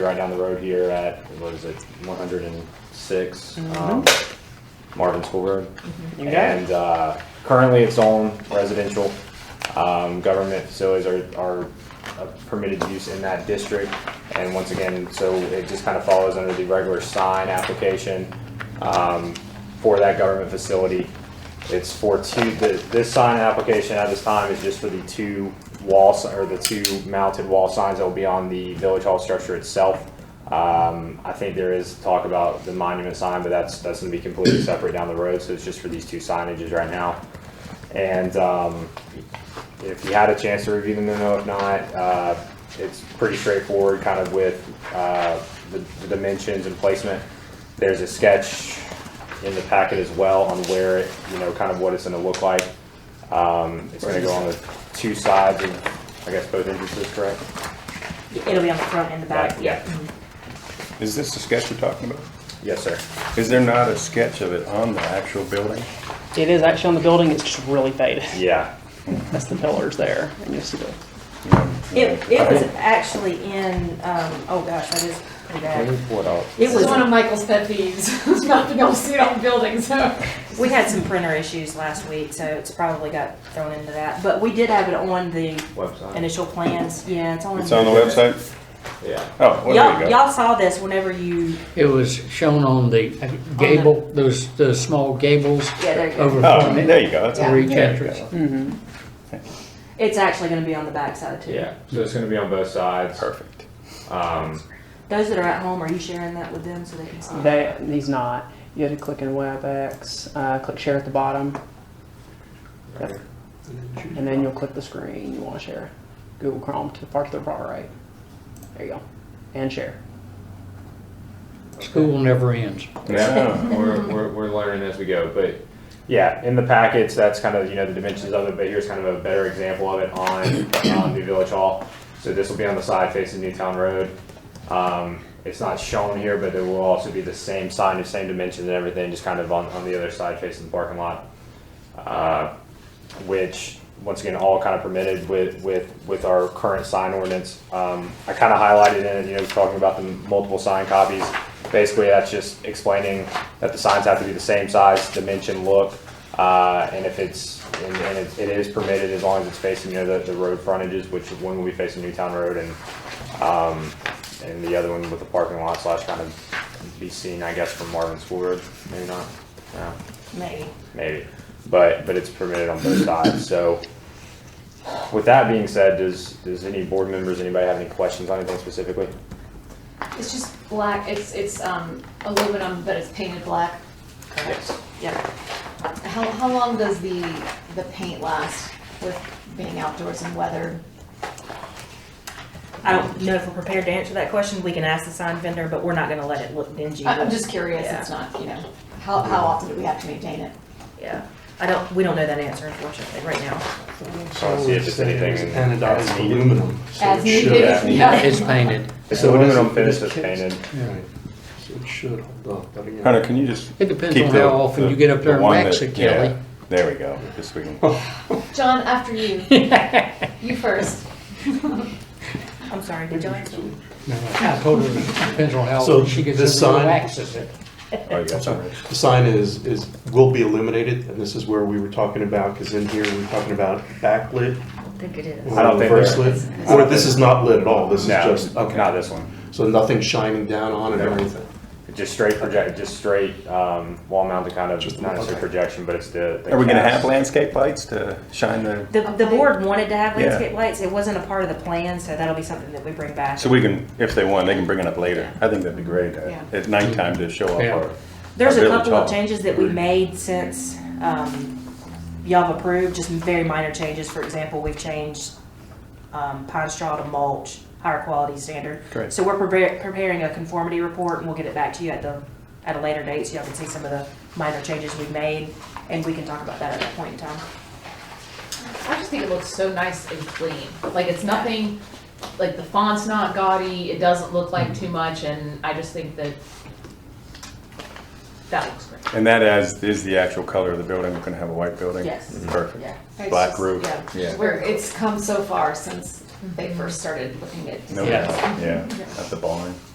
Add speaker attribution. Speaker 1: right down the road here at, what is it, one hundred and six, um, Marvin School Road.
Speaker 2: Mm-hmm. You got it.
Speaker 1: And, uh, currently it's own residential, um, government facilities are, are uh, permitted use in that district. And once again, so it just kind of follows under the regular sign application, um, for that government facility. It's for two, the, this sign application at this time is just for the two wall, si- or the two mounted wall signs that will be on the village hall structure itself. Um, I think there is talk about the monument sign, but that's, that's gonna be completely separate down the road, so it's just for these two signages right now. And, um, if you had a chance to review them, then no, if not, uh, it's pretty straightforward, kind of with, uh, the the dimensions and placement. There's a sketch in the packet as well on where, it you know, kind of what it's gonna look like. Um, it's gonna go on the two sides of, I guess, both entrances, correct?
Speaker 3: It'll be on the front and the back.
Speaker 1: Back, yeah.
Speaker 3: Mhm.
Speaker 4: Is this the sketch you're talking about?
Speaker 1: Yes, sir.
Speaker 4: Is there not a sketch of it on the actual building?
Speaker 2: It is actually on the building, it's just really faded.
Speaker 1: Yeah,
Speaker 2: That's the pillars there, and you'll see the,
Speaker 3: It, it was actually in, um, oh gosh, that is pretty bad.
Speaker 1: What else?
Speaker 3: It
Speaker 5: This is one
Speaker 3: was,
Speaker 5: of Michael's pet peeves, is not to be able to see it on buildings, so.
Speaker 3: we had some printer issues last week, so it's probably got thrown into that. But we did have it on the
Speaker 1: Website.
Speaker 3: initial plans. Yeah, it's on.
Speaker 4: It's on the website?
Speaker 1: Yeah.
Speaker 4: Oh, well, there you
Speaker 3: Y'all,
Speaker 4: go.
Speaker 3: y'all saw this whenever you,
Speaker 6: It was shown on the gable, those, the small gables
Speaker 3: yeah, there you go.
Speaker 6: over
Speaker 4: Oh,
Speaker 6: from
Speaker 4: there
Speaker 6: it,
Speaker 4: you go. That's
Speaker 6: over each
Speaker 4: there you
Speaker 6: entrance.
Speaker 4: go.
Speaker 3: It's actually gonna be on the backside too.
Speaker 1: Yeah, so it's gonna be on both sides.
Speaker 4: Perfect.
Speaker 1: Um,
Speaker 3: Those that are at home, are you sharing that with them so they can see? it?
Speaker 2: that, he's not. You had to click in WebEx, uh, click share at the bottom,
Speaker 1: right here.
Speaker 2: and then you'll click the screen you wanna share. Google Chrome to the far to the far right. There you go. And share.
Speaker 6: School never ends.
Speaker 4: No.
Speaker 1: we're, we're, we're learning as we go, but. Yeah, in the packets, that's kind of, you know, the dimensions of it, but here's kind of a better example of it on, on New Village Hall. So this will be on the side facing Newtown Road. Um, it's not shown here, but it will also be the same sign, the same dimensions and everything, just kind of on, on the other side facing the parking lot. Uh, which, once again, all kind of permitted with, with, with our current sign ordinance. Um, I kind of highlighted in it, you know, talking about the multiple sign copies. Basically, that's just explaining that the signs have to be the same size, dimension, look, uh, and if it's, and, and it, it is permitted as long as it's facing, you know, the, the road frontages, which one will be facing Newtown Road and, um, and the other one with the parking lot slash kind of be seen, I guess, from Marvin School Road, maybe not, yeah
Speaker 3: Maybe.
Speaker 1: maybe. But, but it's permitted on both sides, so. With that being said, does, does any board members, anybody have any questions on anything specifically?
Speaker 5: It's just black, it's, it's um, aluminum, but it's painted black.
Speaker 1: Yes.
Speaker 3: Yeah.
Speaker 5: How, how long does the, the paint last with being outdoors and weather?
Speaker 3: I don't know if we're prepared to answer that question. We can ask the sign vendor, but we're not gonna let it look dingy.
Speaker 5: I- I'm just curious, it's not, you know, how, how often do we have to maintain it?
Speaker 3: Yeah. I don't, we don't know that answer unfortunately right now.
Speaker 1: So let's see if it's anything that's
Speaker 7: Anodized
Speaker 1: needed.
Speaker 7: aluminum. so
Speaker 5: As
Speaker 7: it should-
Speaker 5: needed,
Speaker 6: It's
Speaker 5: yeah.
Speaker 6: painted.
Speaker 1: It's aluminum
Speaker 7: It
Speaker 1: finish
Speaker 7: is
Speaker 1: that's
Speaker 7: kids.
Speaker 1: painted.
Speaker 7: Right. So it should hold up, but again.
Speaker 4: Hunter, can you just?
Speaker 6: It depends
Speaker 4: keep
Speaker 6: on
Speaker 4: the-
Speaker 6: how often
Speaker 4: the-
Speaker 6: you get up
Speaker 4: the
Speaker 6: there and
Speaker 4: one
Speaker 6: wax
Speaker 4: that-
Speaker 6: it, Kelly.
Speaker 4: yeah, There we go. Just we can-
Speaker 5: John, after you. You first.
Speaker 3: I'm sorry, did you answer?
Speaker 6: No, I told her, it depends on how
Speaker 7: So
Speaker 6: often she gets
Speaker 7: this
Speaker 6: up there
Speaker 7: sign-
Speaker 6: and waxes it.
Speaker 4: Oh, you got some.
Speaker 7: The sign is, is, will be illuminated, and this is where we were talking about, because in here, we we're talking about backlit
Speaker 3: I think it is.
Speaker 1: I don't
Speaker 7: or
Speaker 1: think
Speaker 7: reverse
Speaker 1: they're-
Speaker 7: lit. Or this is not lit at all, this is
Speaker 1: No,
Speaker 7: just,
Speaker 1: not
Speaker 7: okay.
Speaker 1: this one.
Speaker 7: So nothing shining down on it or
Speaker 1: No.
Speaker 7: anything.
Speaker 1: Just straight project, just straight, um, wall mounted kind of, not necessarily
Speaker 7: okay.
Speaker 1: projection, but it's the. the
Speaker 4: Are we gonna have
Speaker 1: cast.
Speaker 4: landscape lights to shine the,
Speaker 3: The, the board wanted to have
Speaker 4: Yeah.
Speaker 3: landscape lights. It wasn't a part of the plan, so that'll be something that we bring back.
Speaker 4: so we can, if they want, they can bring it up later. I think that'd be great uh,
Speaker 5: Yeah.
Speaker 4: at nighttime to show off
Speaker 6: Yeah.
Speaker 4: our.
Speaker 3: There's a
Speaker 4: Village
Speaker 3: couple
Speaker 4: Hall.
Speaker 3: of changes that we made since, um, y'all have approved, just very minor changes. For example, we've changed, um, pine straw to mulch, higher quality standard.
Speaker 4: Great.
Speaker 3: So we're prepar- preparing a conformity report and we'll get it back to you at the, at a later date so y'all can see some of the minor changes we've made. And we can talk about that at that point in time.
Speaker 5: I just think it looks so nice and clean. Like it's nothing, like the font's not gaudy, it doesn't look like too much, and I just think that that looks great.
Speaker 4: And that as, is the actual color of the building. We're gonna have a white building.
Speaker 3: Yes.
Speaker 4: Perfect.
Speaker 3: Yeah.
Speaker 4: Black roof. Yeah.
Speaker 5: Where it's come so far since they first started looking at.
Speaker 4: No
Speaker 6: Yeah.
Speaker 4: doubt. Yeah. At the barn.